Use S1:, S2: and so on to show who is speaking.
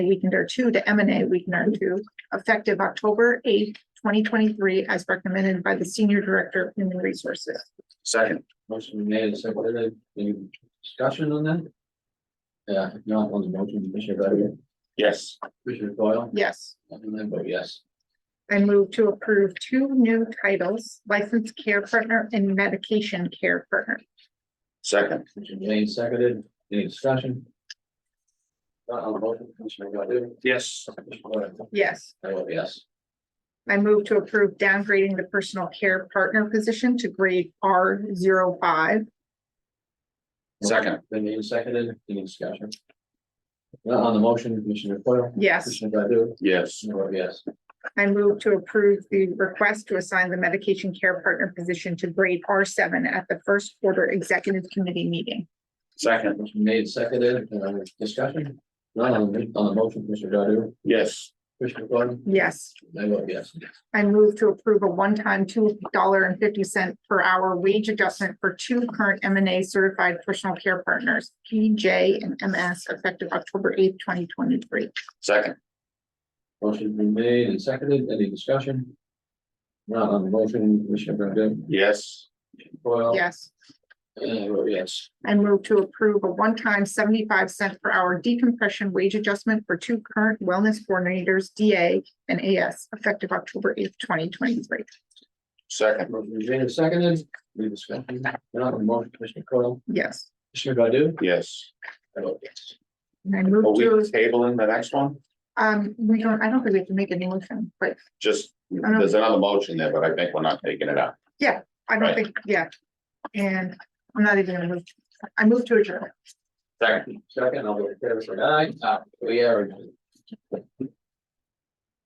S1: Weekender two to M and A Weekender two, effective October eighth, twenty twenty-three, as recommended by the Senior Director of Human Resources.
S2: Second.
S3: Motion been made and seconded. Any discussion on that? Yeah, if not on the motion, Commissioner Badger,
S2: Yes.
S3: Commissioner Coyle,
S1: Yes,
S3: and I vote yes.
S1: I move to approve two new titles, licensed care partner and medication care partner.
S2: Second.
S3: Motion made and seconded. Any discussion? Not on the motion, Commissioner Godu?
S2: Yes.
S3: Commissioner Coyle,
S1: Yes,
S3: I vote yes.
S1: I move to approve downgrading the personal care partner position to grade R 5
S2: Second.
S3: Motion Been made and seconded. Any discussion? Not on the motion, Commissioner Coyle,
S1: Yes,
S3: Commissioner Godu?
S2: Yes.
S3: I vote yes.
S1: I move to approve the request to assign the medication care partner position to grade R seven at the first quarter executive committee meeting.
S2: Second.
S3: Motion made and seconded. Uh, discussion? Not on the, on the motion, Commissioner Godu?
S2: Yes.
S3: Commissioner Coyle,
S1: Yes,
S3: I vote yes.
S1: I move to approve a one-time two dollar and fifty cent per hour wage adjustment for two current M and A certified personal care partners, PJ and MS, effective October eighth, twenty twenty-three.
S2: Second.
S3: Motion been made and seconded. Any discussion? Not on the motion, Commissioner Godu?
S2: Yes.
S3: Coyle?
S1: Yes.
S3: And I vote yes.
S1: I move to approve a one-time seventy-five cent per hour decompression wage adjustment for two current wellness coordinators, DA and AS, effective October eighth, twenty twenty-three.
S2: Second.
S3: Motion been made and seconded. Any discussion? Not on the motion, Commissioner Coyle?
S1: Yes,
S3: Commissioner Godu?
S2: Yes.
S3: I vote yes.
S1: and I
S2: Are
S1: move
S2: we
S1: to,
S2: tabling the next one?
S1: um, we don't, I don't think we have to make a new motion, but
S2: Just, there's another motion there, but I think we're not taking it out.
S1: I
S2: Right.
S1: don't think, yeah. And I'm not even gonna move, I move to adjourn.
S2: Second.
S3: Second, I'll go to favor, say aye. Uh, we are. adjourned.